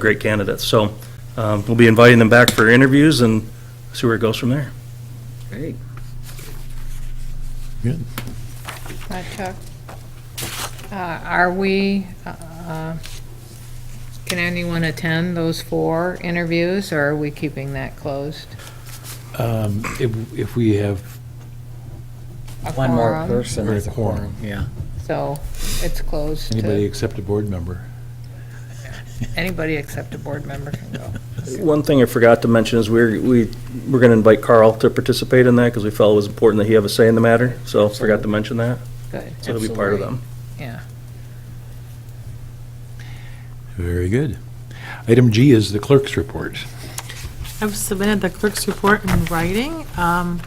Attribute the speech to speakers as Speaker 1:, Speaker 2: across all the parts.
Speaker 1: great candidates. So um, we'll be inviting them back for interviews and see where it goes from there.
Speaker 2: Great.
Speaker 3: Uh, Chuck, uh, are we, uh, can anyone attend those four interviews, or are we keeping that closed?
Speaker 4: Um, If if we have,
Speaker 3: A
Speaker 2: One more
Speaker 3: quorum?
Speaker 2: person
Speaker 4: Or a
Speaker 2: is a quorum,
Speaker 4: quorum.
Speaker 2: yeah.
Speaker 3: So it's closed
Speaker 4: anybody
Speaker 3: to,
Speaker 4: except a board member,
Speaker 3: anybody except a board member can go.
Speaker 1: One thing I forgot to mention is we're, we, we're going to invite Carl to participate in that because we felt it was important that he have a say in the matter. So forgot to mention that.
Speaker 3: Good,
Speaker 1: So he'll be part of
Speaker 2: Absolutely.
Speaker 1: them.
Speaker 3: yeah.
Speaker 4: very good. Item G is the clerk's report.
Speaker 5: I've submitted the clerk's report in writing. Um,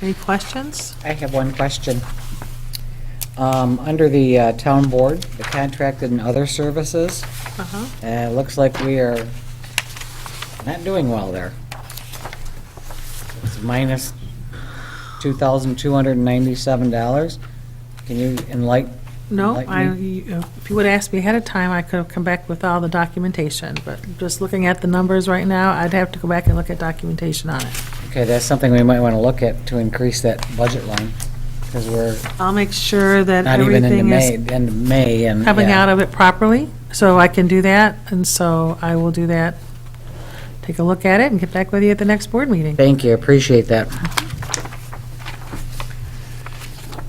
Speaker 5: Any questions?
Speaker 2: I have one question. Um, Under the uh, town board, the contracted and other services,
Speaker 5: Uh-huh.
Speaker 2: uh, it looks like we are not doing well there. It's minus $2,297. Can you enlighten?
Speaker 5: No, I,
Speaker 2: Enlighten
Speaker 5: if you would have asked me ahead of time, I could have come back with all the documentation, but just looking at the numbers right now, I'd have to go back and look at documentation on it.
Speaker 2: Okay, that's something we might want to look at to increase that budget line, because we're
Speaker 5: I'll make sure that
Speaker 2: not even into
Speaker 5: everything
Speaker 2: May,
Speaker 5: is
Speaker 2: end of May, and.
Speaker 5: coming
Speaker 2: yeah.
Speaker 5: out of it properly, so I can do that, and so I will do that. Take a look at it and get back with you at the next board meeting.
Speaker 2: Thank you, appreciate that.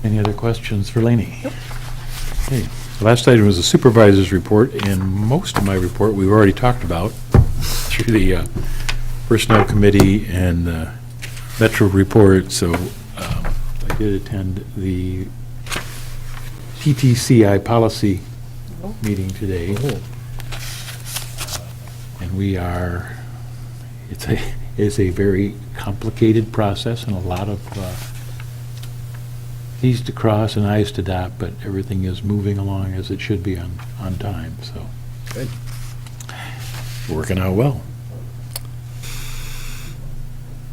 Speaker 4: Any other questions for Laney? Okay. The Last item was the supervisor's report, and most of my report, we've already talked about through the uh, Personnel Committee and the Metro report, so um, I did attend the TTCI policy meeting today. Uh, And we are, it's a, it's a very complicated process and a lot of uh, T's to cross and I's to dot, but everything is moving along as it should be on, on time, so. Good. Working out well.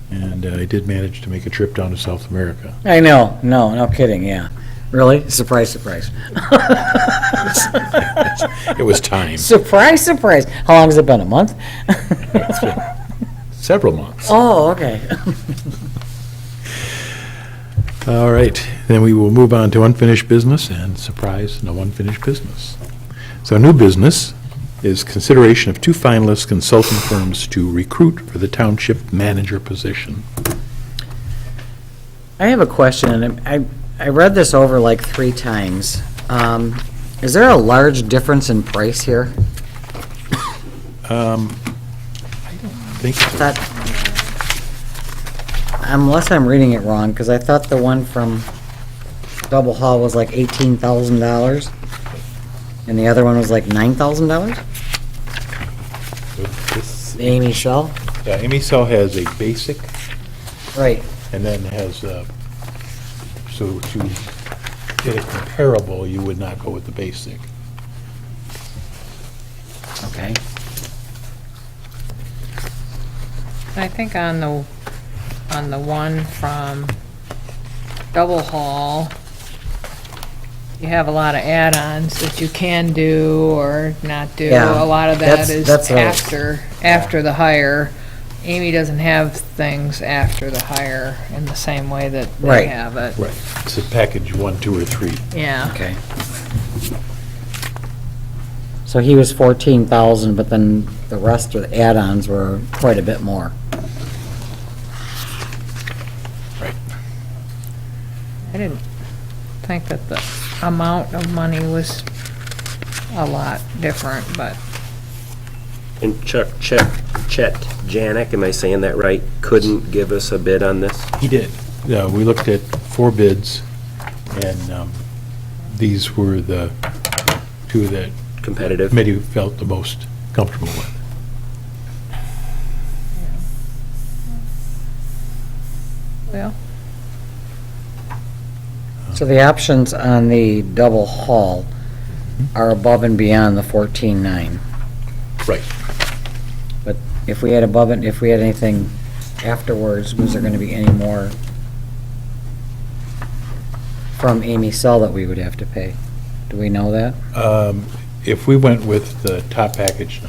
Speaker 4: And uh, I did manage to make a trip down to South America.
Speaker 2: I know, no, no kidding, yeah. Really? Surprise, surprise.
Speaker 4: It was time,
Speaker 2: Surprise, surprise. How long has it been, a month?
Speaker 4: several months.
Speaker 2: Oh, okay.
Speaker 4: All right, then we will move on to unfinished business, and surprise, no unfinished business. So new business is consideration of two finalist consulting firms to recruit for the township manager position.
Speaker 2: I have a question, and I, I read this over like three times. Um, Is there a large difference in price here?
Speaker 4: Um, Think so.
Speaker 2: That, unless I'm reading it wrong, because I thought the one from Double Hall was like eighteen thousand dollars, and the other one was like nine thousand dollars? Amy Shell?
Speaker 4: Yeah, uh, Amy Cell has a basic
Speaker 2: Right.
Speaker 4: and then has, uh, so to get it comparable, you would not go with the basic.
Speaker 2: Okay.
Speaker 3: I think on the, on the one from Double Hall, you have a lot of add-ons that you can do or not do.
Speaker 2: Yeah,
Speaker 3: A lot of that
Speaker 2: that's-
Speaker 3: is
Speaker 2: that's what I was-
Speaker 3: after, after the hire. Amy doesn't have things after the hire in the same way that they
Speaker 2: Right.
Speaker 3: have it.
Speaker 4: Right. It's a package one, two, or three.
Speaker 3: Yeah,
Speaker 2: Okay. So he was fourteen thousand, but then the rest of the add-ons were quite a bit more.
Speaker 3: I didn't think that the amount of money was a lot different, but
Speaker 6: And Chuck, Chet, Chet Janik, am I saying that right, couldn't give us a bid on this?
Speaker 4: He did. Yeah, we looked at four bids, and um, these were the two that
Speaker 6: Competitive?
Speaker 4: committee felt the most comfortable with.
Speaker 3: well,
Speaker 2: So the options on the double hull are above and beyond the fourteen-nine.
Speaker 4: Right.
Speaker 2: But if we had above it, if we had anything afterwards, was there gonna be any more from Amy Cell that we would have to pay? Do we know that?
Speaker 4: Um, if we went with the top package